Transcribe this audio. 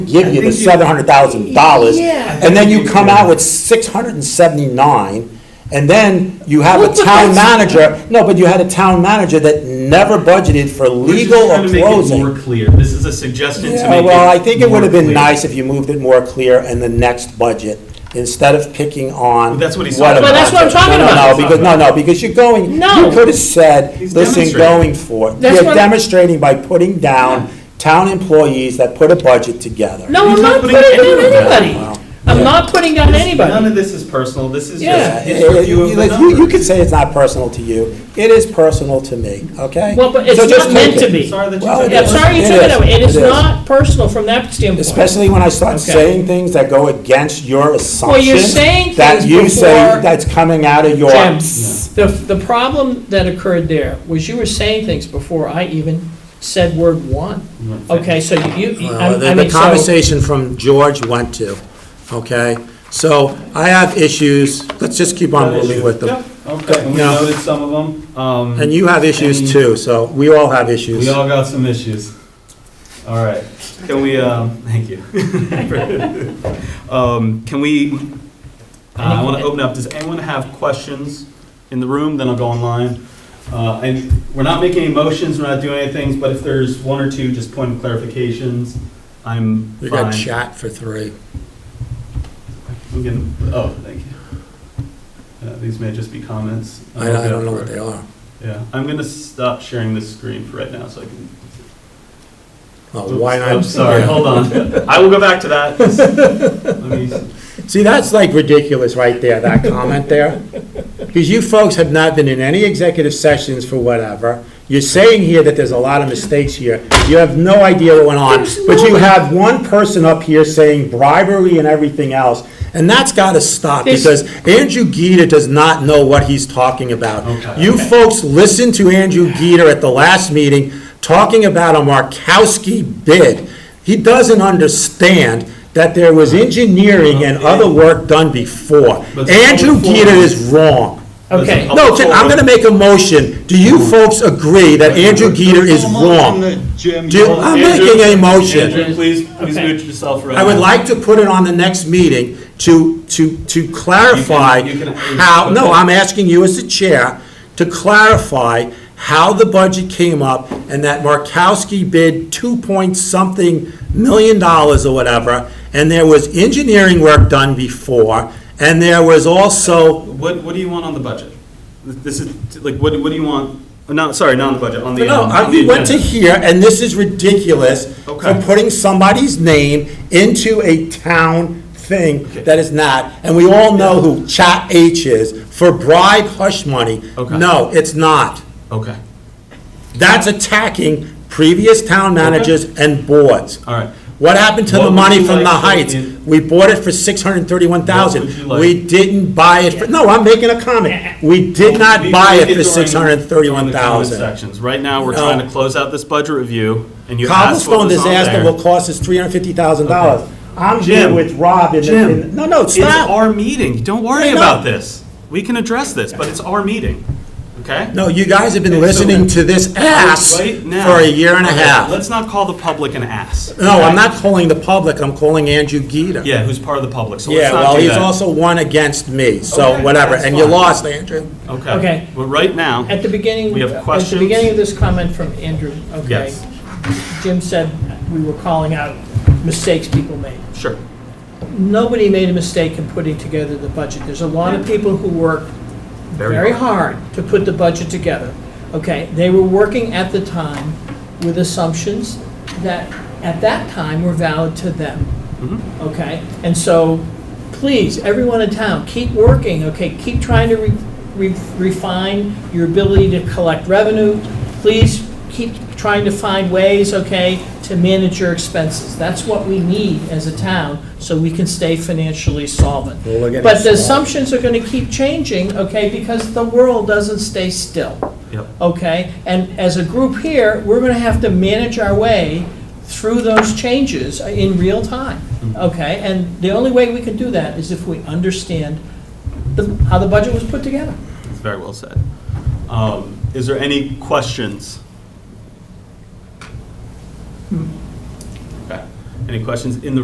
give you the think you- seven hundred thousand dollars, Yeah. and then you come out with six hundred and seventy-nine, and then you have a Well, but town that's- manager, no, but you had a town manager that never budgeted for We're just legal trying or to make it closing. More clear, this is a suggestion to Yeah, Uh, make it. well, I think it would have been more clear. nice if you moved it more clear in the next budget, instead of picking on. Well, that's what he's a talking about. Well, that's what I'm budget- talking no, about. No, because, no, no, because you're going, No. you could have said, He's listen, demonstrating. going for, it." That's you're what- demonstrating by putting down town employees that put a budget together. No, He's I'm not not putting putting down anyone down. Wow. anybody. I'm not putting down None anybody. of this is personal, this is Yeah. just his It- it- review You of the like, you- you numbers. could say it's not personal to you. It is personal to me, okay? Well, but So it's just not meant take it. to be. Sorry that you Well, took it that Yeah, I'm is. sorry you took it that way. It is is. not personal from that standpoint. Especially when I start Okay. saying things that go against your assumption. saying That things you say, before- that's coming out of your. Jim, the, the problem that occurred there was you were saying things before I even said word one. Okay, so you, you- Well, I I The the mean, so, conversation from George went to, okay? So I have issues, let's just keep on moving with them. Yeah, okay, and we No. noted some of them, um. And you have issues and too, so we all have issues. We all got some issues. All right, can we, um, thank you. Um, can we, uh, I wanna open up, does anyone have questions in the room, then I'll go online. Uh, and we're not making any motions, we're not doing anything, but if there's one or two, just point of clarifications, I'm fine. We got shot for three. We can, oh, thank you. Uh, These may just be comments. Uh, I I don't know what they are. Yeah, I'm gonna stop sharing this screen for right now, so I can. Oh, Why not? I'm sorry, yeah. hold on. I will go back to that. Just- let me- See, that's like ridiculous right there, that comment there. Because you folks have not been in any executive sessions for whatever. You're saying here that there's a lot of mistakes here. You have no idea what went on. But you have one person up here saying bribery and everything else. And that's got to stop There's- because Andrew Gita does not know what he's talking about. Okay. You folks listened to Andrew Gita at the last meeting talking about a Markowski bid. He doesn't understand that there was engineering and other work done before. But it's Andrew public Gita forum. is wrong. okay. There's a No, public I'm gonna forum. make a motion. Do you folks agree that Andrew Gita is wrong? Do- I'm Andrew- making a motion. Andrew, please, please Okay. mute yourself right now. I would like to put it on the next meeting to, to, to clarify You can- you can- how, no, I'm asking you as the chair to clarify how the budget came up and that Markowski bid two point something million dollars or whatever, and there was engineering work done before, and there was also, What, what do you want on the budget? This is, like, what, what do you want? No, sorry, not on the budget, on the. no, um, I- on the we went to agenda. here, and this is ridiculous for Okay. putting somebody's name into a town thing Okay. that is not, and we all know who Chat H is, for bribe hush money. Okay. No, it's not. Okay, That's attacking previous town managers and boards. all right. What happened to What the would money you from the like to Heights? in- We bought it for six hundred and thirty-one What would you thousand. like- We didn't buy it, for no, I'm making a comment. We did not We- buy we it did for during- six hundred and during thirty-one the comment thousand. Sections. Right now, we're No. trying to close out this budget review, and you asked what Cobblestone was on disaster there. will cost us three hundred and fifty thousand dollars. I'm here Jim, with Rob in, the- in, Jim, no, no, It's stop. our meeting, don't worry I know. about this. We can address this, but it's our meeting, okay? No, you guys have been Okay, so listening then- to this ass Right now- for a year and a Okay, half. Let's not call the public an ass. No, I'm not calling the public, I'm calling Andrew Gita. Yeah, who's part of the public, so Yeah, let's well, not do he's that. also one against me, so Okay, whatever, that's and you fine. lost, Andrew. Okay. Okay. But right now, At the beginning, We have at the questions? beginning of this comment from Andrew, okay? Yes. Jim said we were calling out mistakes people made. sure. Nobody made a mistake in putting together the budget. There's a lot of people who work very hard to put the budget together, okay? They were working at the time with assumptions that, at that time, were valid to them, okay? And so, please, everyone in town, keep working, okay? Keep trying to re- re- refine your ability to collect revenue. Please keep trying to find ways, okay, to manage your expenses. That's what we need as a town, so we can stay financially solvent. Well, we're getting But small. the assumptions are going to keep changing, okay, because the world doesn't stay still, Yep. okay? And as a group here, we're going to have to manage our way through those changes in real time, okay? And the only way we can do that is if we understand the- how the budget was put together. It's very well said. Um, is there any Hmm. questions? Okay. Any questions? In the